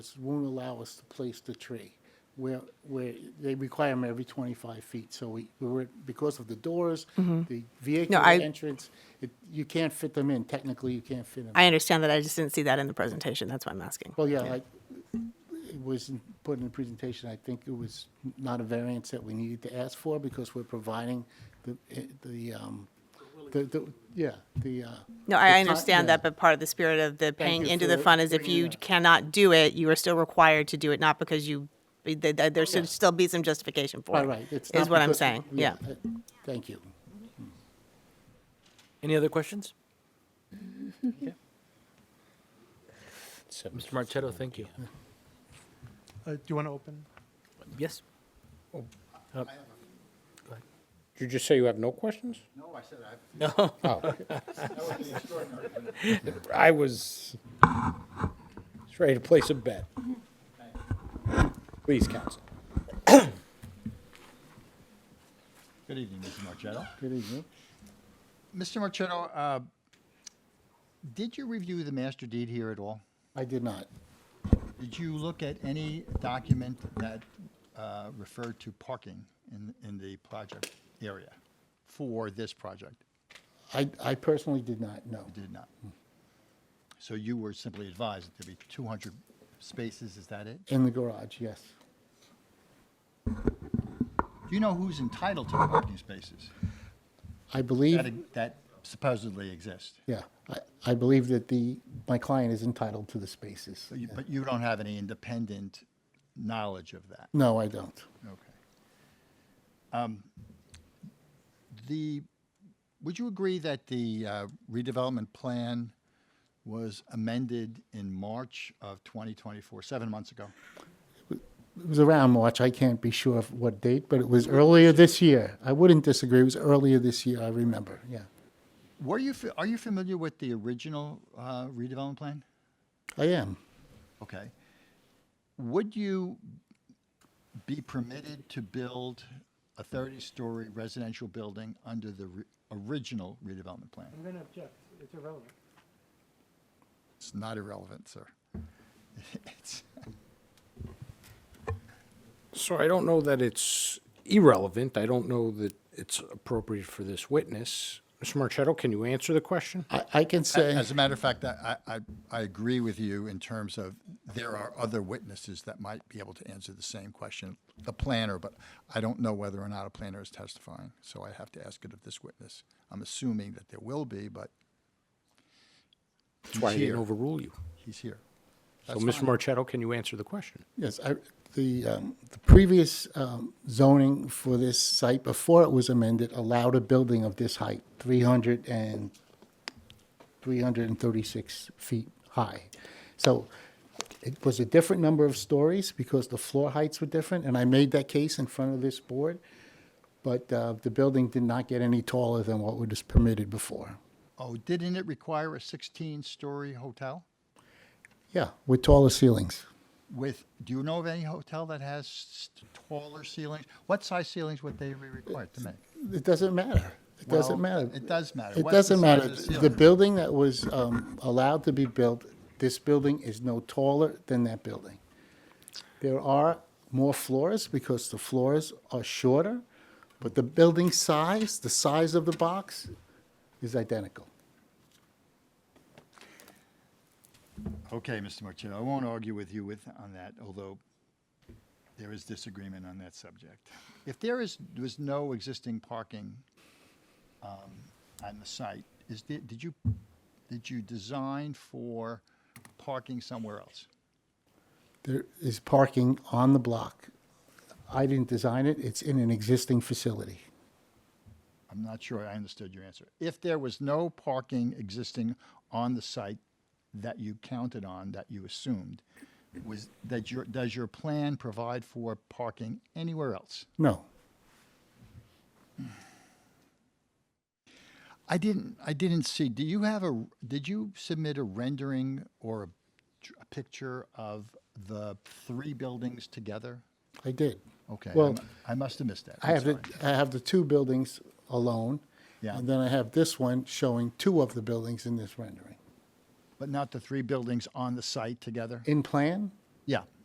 ordinance won't allow us to place the tree where, where they require them every 25 feet. So we, we were, because of the doors, the vehicular Mm-hmm. I- entrance, it- you can't fit them in. Technically, you can't fit them. I understand that. I just didn't see that in the presentation. That's why I'm asking. Well, yeah, like, it was in- put in the presentation, I think it was not a variance that we needed to ask for because we're providing the, eh, the, um, the, the- yeah, the. uh, the No, I con- understand yeah. that, but part of the spirit of the paying you into the for fund is if bringing you that. cannot do it, you are still required to do it, not because you, th- th- there should still be some justification for it. Right, right. It's Is not what I'm because- saying, yeah. eh, Thank you. Any other questions? Okay. Mr. Marchetto, thank you. Uh, Do you want to open? Yes? Did you just say you have no questions? No, I said I. No. I was just ready to place a bet. Please, counsel. Good evening, Mr. Marchetto. Good evening. Mr. Marchetto, uh, did you review the master deed here at all? I did not. Did you look at any document that uh, referred to parking in, in the project area for this project? I, I personally did not, no. You Did not. So you were simply advised that there'd be 200 spaces, is that it? In the garage, yes. Do you know who's entitled to the parking spaces I believe, that- e-, that supposedly exist? yeah, I, I believe that the, my client is entitled to the spaces. But you- But you don't have any independent knowledge of that? No, I don't. Okay. Um, The, would you agree that the uh, redevelopment plan was amended in March of 2024, seven months ago? It was around March, I can't be sure of what date, but it was earlier this year. I wouldn't disagree, it was earlier this year, I remember, yeah. Were you, fa- are you familiar with the original uh, redevelopment plan? I am. Okay. Would you be permitted to build a 30-story residential building under the re- original redevelopment plan? I'm going to object. It's irrelevant. It's not irrelevant, sir. It's, So I don't know that it's irrelevant. I don't know that it's appropriate for this witness. Mr. Marchetto, can you answer the question? I, I can say. As a matter of fact, I, I, I agree with you in terms of there are other witnesses that might be able to answer the same question, the planner, but I don't know whether or not a planner is testifying, so I have to ask it of this witness. I'm assuming that there will be, but That's why I he's didn't here. overrule you. he's here. So, Mr. Marchetto, can you answer the question? Yes, I, the, um, the previous, um, zoning for this site before it was amended allowed a building of this height, 300 and 336 feet high. So it was a different number of stories because the floor heights were different, and I made that case in front of this board. But, uh, the building did not get any taller than what was permitted before. Oh, didn't it require a 16-story hotel Yeah, with taller ceilings. with, do you know of any hotel that has s- taller ceilings? What size ceilings would they be required to make? It doesn't matter. It doesn't Well, matter. It does matter. It What's the doesn't size matter. of the The ceiling? building that was um, allowed to be built, this building is no taller than that building. There are more floors because the floors are shorter, but the building size, the size of the box is identical. Okay, Mr. Marchetto, I won't argue with you with, on that, although there is disagreement on that subject. If there is, was no existing parking um, on the site, is, the- did you, did you design for parking somewhere else? There is parking on the block. I didn't design it. It's in an existing facility. I'm not sure I understood your answer. If there was no parking existing on the site that you counted on, that you assumed, was, that your, does your plan provide for parking anywhere else? No. I didn't, I didn't see, do you have a, did you submit a rendering or a, tr- a picture of the three buildings together? I did. Okay, I Well, mu- I must have missed that. I I'm have the, sorry. I have the two buildings alone. Yeah. And then I have this one showing two of the buildings in this rendering. But not the three buildings on the site together? In plan? Yeah.